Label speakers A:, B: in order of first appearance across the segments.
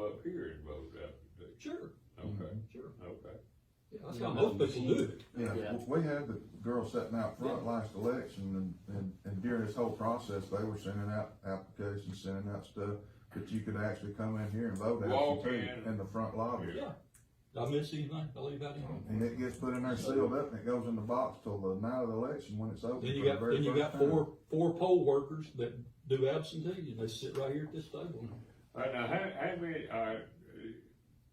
A: Mm-hmm. That's how most people do it.
B: Yeah,
C: Yeah.
B: w- we had the girls sitting out front last election and, and, and during this whole process, they were sending out applications, sending out stuff. But you could actually come in here and vote
D: Walk
B: absentee
D: in.
B: in the front lobby.
A: Yeah. Did I miss anything? Did I leave out anything?
B: And it gets put in there sealed up and it goes in the box till the night of the election when it's open.
A: Then you
B: for the
A: got,
B: very
A: then you
B: first
A: got four, four poll workers that do absentee, and they sit right here at this table.
B: Mm-hmm.
D: Uh, now, how, how many, uh,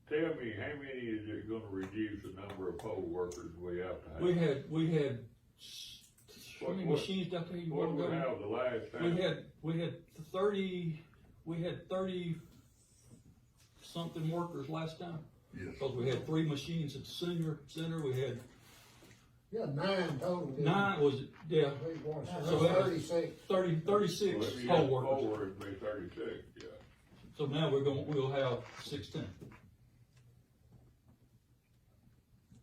D: tell me, how many is it gonna reduce the number of poll workers we have to have?
A: We had, we had, s- how
D: What-
A: many
D: what-
A: machines down there you
D: What
A: want
D: we
A: to go?
D: have the last time?
A: We had, we had thirty, we had thirty something workers last time.
B: Yes.
A: Because we had three machines at the senior center, we had
E: Yeah, nine total. didn't
A: nine, was it, yeah,
E: we? Three, four, six,
A: So that-
E: Thirty-six.
A: thirty, thirty-six
D: Well, if you
A: poll
D: had
A: workers.
D: Four, it'd be thirty-six, yeah.
A: So now we're going, we'll have sixteen.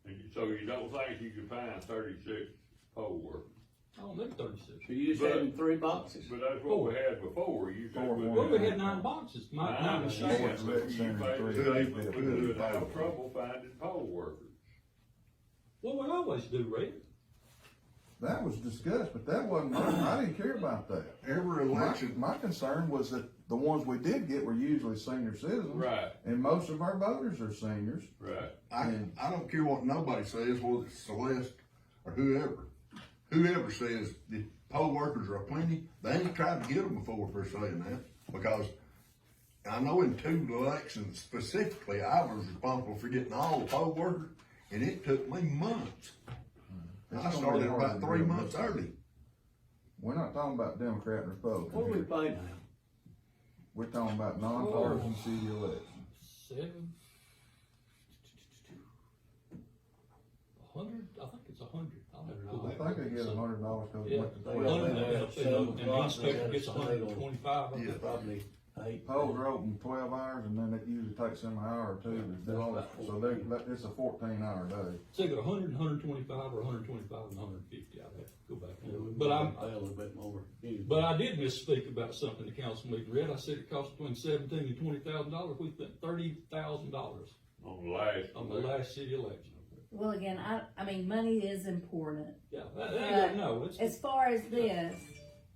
D: And you- so you don't think you can find thirty-six poll workers?
A: I don't think Oh, thirty-six.
C: So you just
D: But-
C: having three boxes?
D: But that's what we had before, you said.
B: Four
D: we-
B: more.
A: Well, we had nine boxes, nine, nine
D: Nine,
A: machines.
D: yeah, but you made a
B: Three.
D: statement, we would
B: Three.
D: have trouble finding poll workers.
A: Well, we always do, Ray.
B: That was discussed, but that wasn't, my- I didn't care about that. My,
F: Every election,
B: my concern was that the ones we did get were usually senior citizens.
D: Right,
B: And most of our voters are seniors.
D: right.
F: I, I don't care what nobody says, whether it's Celeste or whoever. Whoever says the poll workers are plenty, they ain't tried to get them before for saying that. Because I know in two elections specifically, I was responsible for getting all the poll workers, and it took me months. I
B: It's gonna be
F: started
B: Hmm. hard
F: about
B: to
F: three
B: do.
F: months early.
B: We're not talking about Democrat and
C: What we
B: Republican here.
C: paid now?
B: We're talking about nonpartisan city election.
A: Seven. A hundred, I think it's a hundred. I'll have to go
B: I
A: back.
B: think they get a hundred dollars because they
A: Yeah.
B: went to
A: A
B: twelve.
A: hundred,
C: Well, they
A: and-
C: have
A: and-
C: some
A: and the uh, inspector
C: lots
A: gets a
C: that are
A: hundred and
C: stable.
A: twenty-five. I
F: Yeah.
A: think.
C: Probably eight.
B: Polls are open twelve hours and then it usually takes them an hour or two to do all that. So they, that- it's a fourteen hour day.
A: It's either a hundred, and hundred and twenty-five, or a hundred and twenty-five and a hundred and fifty. I'd have to go back. and look. But I'm,
C: Pay a little bit more.
A: but I did misspeak about something the council meeting read. I said it costs between seventeen and twenty thousand dollars. We spent thirty thousand dollars
D: On the last.
A: on the last city election.
G: Well, again, I, I mean, money is important.
A: Yeah, that, that, ain't-
G: But
A: no, it's.
G: As far as this,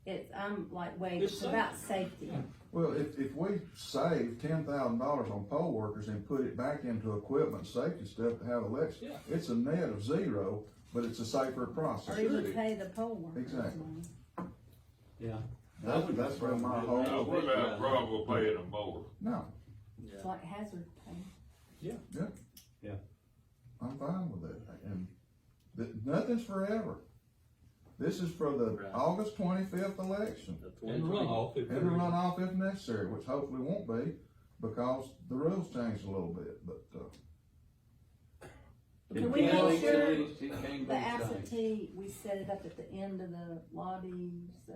G: it's, I'm like, wait,
A: It's
G: it's about safety.
A: Yeah.
B: Well, if, if we save ten thousand dollars on poll workers and put it back into equipment, safety stuff to have elections,
A: Yeah.
B: it's a net of zero, but it's a safer process.
G: Or you would pay the poll workers.
B: Exactly.
G: money.
C: Yeah.
B: That's, that's where my
D: Now,
B: whole,
D: what about Bravo paying them more?
B: no,
G: It's like hazard pay.
B: yeah.
C: Yeah.
B: I'm fine with it, and th- nothing's forever. This is for the
C: Right.
B: August twenty-fifth election.
A: And runoff. if
B: And a runoff if necessary, which hopefully won't be, because the rules changed a little bit, but, uh,
G: Can we make sure
C: the
G: the absentee, we set it up at the end of the lobby so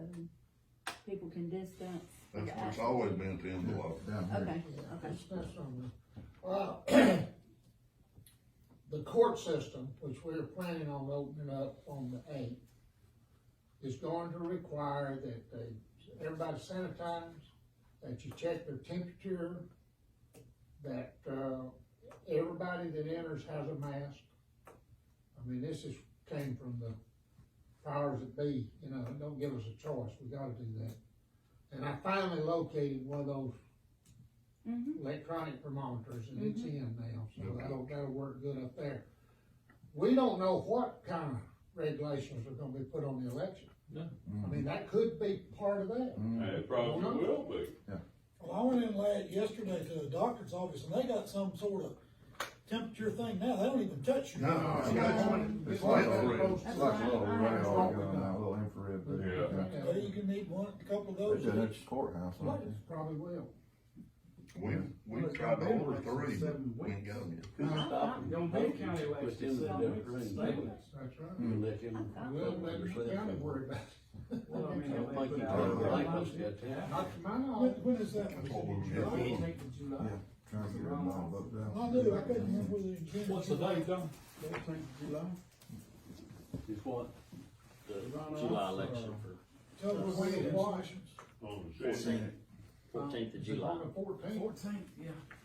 G: people can distance? for the
F: That's what's
G: absentee?
F: always been to end the law.
B: down here.
G: Okay, okay.
E: That's, that's on there. Uh, The court system, which we're planning on opening up on the eighth, is going to require that they, everybody sanitize, that you check their temperature, that, uh, everybody that enters has a mask. I mean, this is, came from the powers that be, you know, don't give us a choice, we gotta do that. And I finally located one of those
G: Mhm.
E: electronic thermometers, and it's in now, so that'll, that'll work good up there. We don't know what kind of regulations are gonna be put on the election.
A: No.
E: I mean, that could be part of that.
D: It probably will be.
H: Well, I went in late yesterday to the doctor's office and they got some sort of temperature thing now. They don't even touch you.
F: No, it's got-
B: It's like,
F: Yeah.
B: a-
E: That's
B: it's like a little
G: why I
B: radar
G: have
B: gun,
E: one.
B: a little infrared.
D: Yeah.
B: thing.
H: Well, you can need one, a couple of
B: They
H: those.
B: should have
H: each.
B: the courthouse, I think.
E: Probably will.
F: We, we tried to order three, but we ain't got them yet.
E: That's right.
C: Let him.
E: Well, let the county worry about
C: I
I: mean,
C: don't think you
I: they-
C: can break us yet,
E: it.
C: yeah.
E: Not to my
H: When,
E: knowledge.
H: when is that?
F: That's what we were
H: July?
F: doing.
B: Trying to get them all booked up.
H: I knew, I couldn't remember whether it was.
A: What's the date, Don?
C: It's what? The July election for
H: Tell us when it was.
D: On the city.
C: fourteenth of
E: It's on
C: July.
E: the fourteenth.
I: Fourteenth, yeah.